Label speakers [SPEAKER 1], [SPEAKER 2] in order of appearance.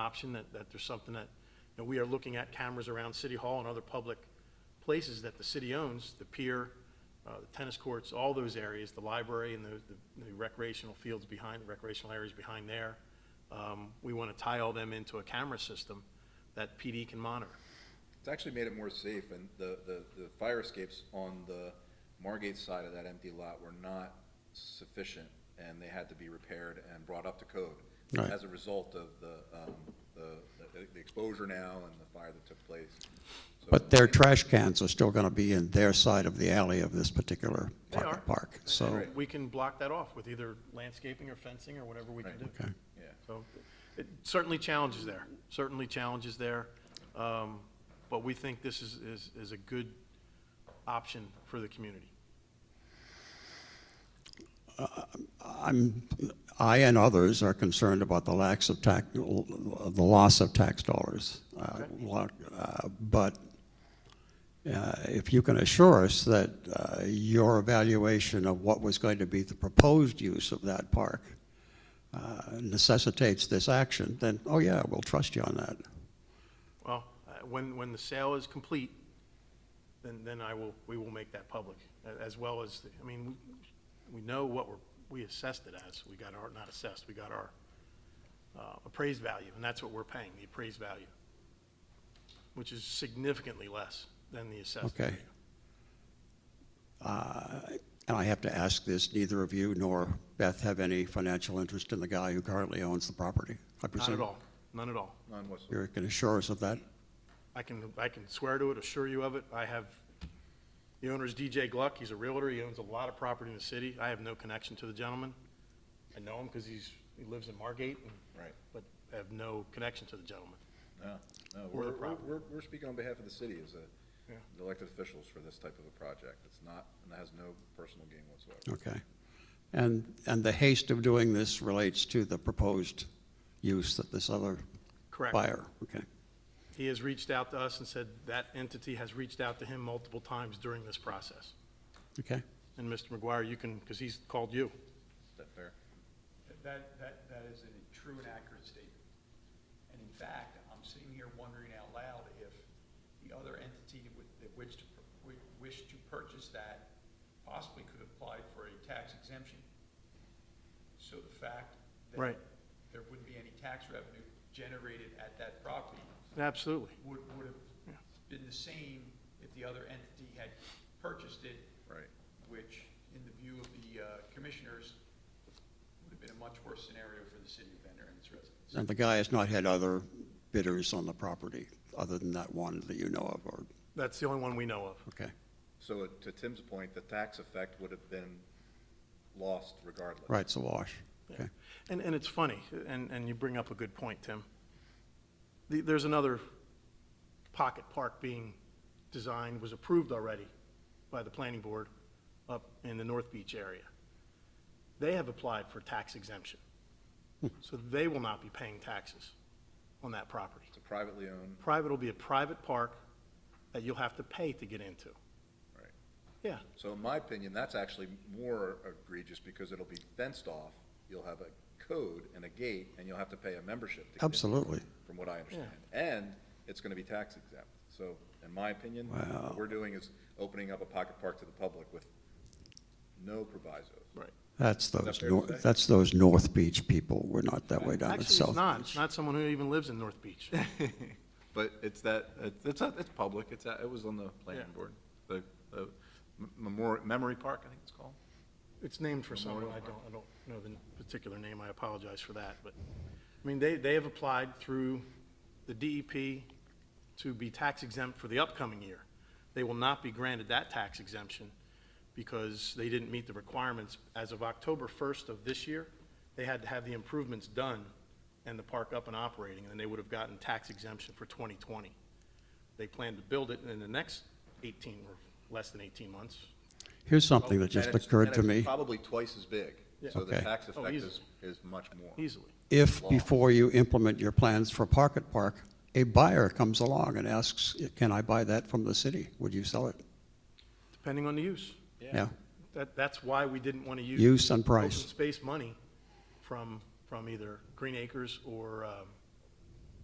[SPEAKER 1] option, that, that there's something that, you know, we are looking at cameras around City Hall and other public places that the city owns, the pier, uh, the tennis courts, all those areas, the library and the- the the recreational fields behind, recreational areas behind there. Um, We want to tie all them into a camera system that PD can monitor.
[SPEAKER 2] It's actually made it more safe, and the, the, the fire escapes on the Margate side of that empty lot were not sufficient, and they had to be repaired and brought up to code.
[SPEAKER 3] Right.
[SPEAKER 2] As a result of the, um, the, the- the exposure now and the fire that took place. So-
[SPEAKER 3] But their trash cans are still going to be in their side of the alley of this particular
[SPEAKER 1] They
[SPEAKER 3] part-
[SPEAKER 1] are.
[SPEAKER 3] park. So,
[SPEAKER 1] We can block that off with either landscaping or fencing or whatever we can
[SPEAKER 2] Right.
[SPEAKER 1] do.
[SPEAKER 3] okay.
[SPEAKER 2] Yeah.
[SPEAKER 1] So it certainly challenges there, certainly challenges there. Um, But we think this is, is, is a good option for the community.
[SPEAKER 3] I'm, I and others are concerned about the lax of tax, the loss of tax dollars. Uh,
[SPEAKER 1] Okay.
[SPEAKER 3] lo- uh, But uh, if you can assure us that uh, your evaluation of what was going to be the proposed use of that park uh, necessitates this action, then, oh yeah, we'll trust you on that.
[SPEAKER 1] Well, uh, when, when the sale is complete, then, then I will, we will make that public, a- as well as, I mean, we- we know what we're, we assessed it as. We got our, not assessed, we got our uh, appraised value, and that's what we're paying, the appraised value, which is significantly less than the assessed
[SPEAKER 3] Okay.
[SPEAKER 1] value.
[SPEAKER 3] Uh, And I have to ask this, neither of you nor Beth have any financial interest in the guy who currently owns the property, I
[SPEAKER 1] Not
[SPEAKER 3] presume?
[SPEAKER 1] at all, none at all.
[SPEAKER 2] Non-whistle.
[SPEAKER 3] You can assure us of that?
[SPEAKER 1] I can, I can swear to it, assure you of it. I have, the owner's DJ Gluck, he's a realtor, he owns a lot of property in the city. I have no connection to the gentleman. I know him because he's, he lives in Margate, and-
[SPEAKER 2] Right.
[SPEAKER 1] but I have no connection to the gentleman. Or
[SPEAKER 2] No, no,
[SPEAKER 1] the
[SPEAKER 2] we're, we're,
[SPEAKER 1] property.
[SPEAKER 2] we're- we're speaking on behalf of the city as
[SPEAKER 1] Yeah.
[SPEAKER 2] a, elected officials for this type of a project. It's not, and it has no personal gain whatsoever.
[SPEAKER 3] Okay. And, and the haste of doing this relates to the proposed use that this other
[SPEAKER 1] Correct.
[SPEAKER 3] buyer, okay?
[SPEAKER 1] He has reached out to us and said that entity has reached out to him multiple times during this process.
[SPEAKER 3] Okay,
[SPEAKER 1] And Mr. McGuire, you can, because he's called you.
[SPEAKER 2] Is that fair?
[SPEAKER 4] That, that, that is a true and accurate statement. And in fact, I'm sitting here wondering out loud if the other entity that would- that wished, to pur- wi- wished to purchase that possibly could apply for a tax exemption. So the fact that
[SPEAKER 1] Right.
[SPEAKER 4] there wouldn't be any tax revenue generated at that property
[SPEAKER 1] Absolutely.
[SPEAKER 4] would, would have been the same if the other entity had purchased it.
[SPEAKER 2] Right.
[SPEAKER 4] Which, in the view of the uh, commissioners, would have been a much worse scenario for the city of Bender and its residents.
[SPEAKER 3] and the guy has not had other bidders on the property, other than that one that you know of, or,
[SPEAKER 1] That's the only one we know of.
[SPEAKER 3] okay,
[SPEAKER 2] So uh, to Tim's point, the tax effect would have been lost regardless.
[SPEAKER 3] right, it's a wash, okay?
[SPEAKER 1] And, and it's funny, and, and you bring up a good point, Tim. The- There's another pocket park being designed, was approved already by the planning board up in the North Beach area. They have applied for tax exemption,
[SPEAKER 3] Hmm.
[SPEAKER 1] so they will not be paying taxes on that property.
[SPEAKER 2] It's a privately owned,
[SPEAKER 1] Private will be a private park that you'll have to pay to get into.
[SPEAKER 2] right.
[SPEAKER 1] Yeah,
[SPEAKER 2] So in my opinion, that's actually more egregious because it'll be fenced off. You'll have a code and a gate and you'll have to pay a membership. to get in,
[SPEAKER 3] Absolutely.
[SPEAKER 2] From what I understand. And it's gonna be tax exempt. So in my opinion,
[SPEAKER 3] Wow.
[SPEAKER 2] what we're doing is opening up a pocket park to the public with no provisos.
[SPEAKER 1] right.
[SPEAKER 3] That's
[SPEAKER 2] that
[SPEAKER 3] those,
[SPEAKER 2] fair
[SPEAKER 3] nor-
[SPEAKER 2] to say?
[SPEAKER 3] that's those North Beach people, we're not that way down
[SPEAKER 1] Actually,
[SPEAKER 3] at
[SPEAKER 1] it's
[SPEAKER 3] South
[SPEAKER 1] not,
[SPEAKER 3] Beach.
[SPEAKER 1] it's not someone who even lives in North Beach.
[SPEAKER 2] But it's that, it's- it's, not- it's public, it's, at- it was on the planning
[SPEAKER 1] Yeah.
[SPEAKER 2] board, the, the memori- memory park, I think it's called.
[SPEAKER 1] It's named for someone, I don't, I don't know the particular name, I apologize for that, but, I mean, they, they have applied through the DEP to be tax exempt for the upcoming year. They will not be granted that tax exemption because they didn't meet the requirements. As of October first of this year, they had to have the improvements done and the park up and operating, and then they would have gotten tax exemption for twenty twenty. They plan to build it in the next eighteen, or less than eighteen months,
[SPEAKER 3] Here's something that just
[SPEAKER 2] And it's-
[SPEAKER 3] occurred
[SPEAKER 2] and
[SPEAKER 3] to
[SPEAKER 2] it's
[SPEAKER 3] me.
[SPEAKER 2] Probably twice as big,
[SPEAKER 1] Yeah.
[SPEAKER 2] so the
[SPEAKER 3] Okay.
[SPEAKER 2] tax
[SPEAKER 1] Oh,
[SPEAKER 2] effect
[SPEAKER 1] easily.
[SPEAKER 2] is, is much more.
[SPEAKER 1] easily.
[SPEAKER 3] If,
[SPEAKER 2] law.
[SPEAKER 3] before you implement your plans for Pocket Park, a buyer comes along and asks, can I buy that from the city? Would you sell it?
[SPEAKER 1] depending on the use.
[SPEAKER 3] Yeah.
[SPEAKER 1] That, that's why we didn't want to use.
[SPEAKER 3] Use and
[SPEAKER 1] Open
[SPEAKER 3] price.
[SPEAKER 1] space money from, from either Green Acres or um,